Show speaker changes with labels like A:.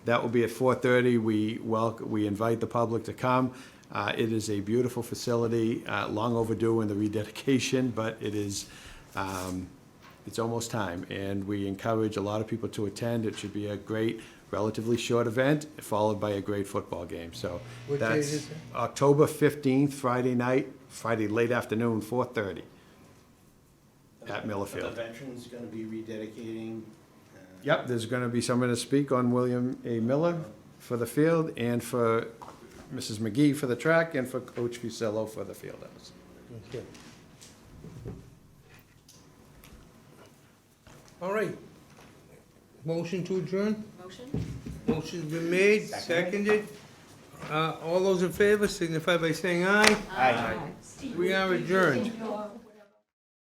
A: That will be at 4:30. We welcome, we invite the public to come. Uh, It is a beautiful facility, uh, long overdue in the rededication, but it is, um, it's almost time, and we encourage a lot of people to attend. It should be a great, relatively short event, followed by a great football game, so.
B: What day
A: that's
B: is it?
A: October 15th, Friday night, Friday late afternoon, 4:30 at
C: The
A: Millerfield.
C: veteran's gonna be rededicating. uh,
A: Yep, there's going to be someone to speak on William A. Miller for the field and for Mrs. McGee for the track and for Coach Fusillo for the field house.
B: Okay. All right. Motion to adjourn?
D: Motion?
B: Motion's been made, seconded. Uh, all those in favor signify by saying aye.
D: Aye.
B: We are adjourned.
D: Your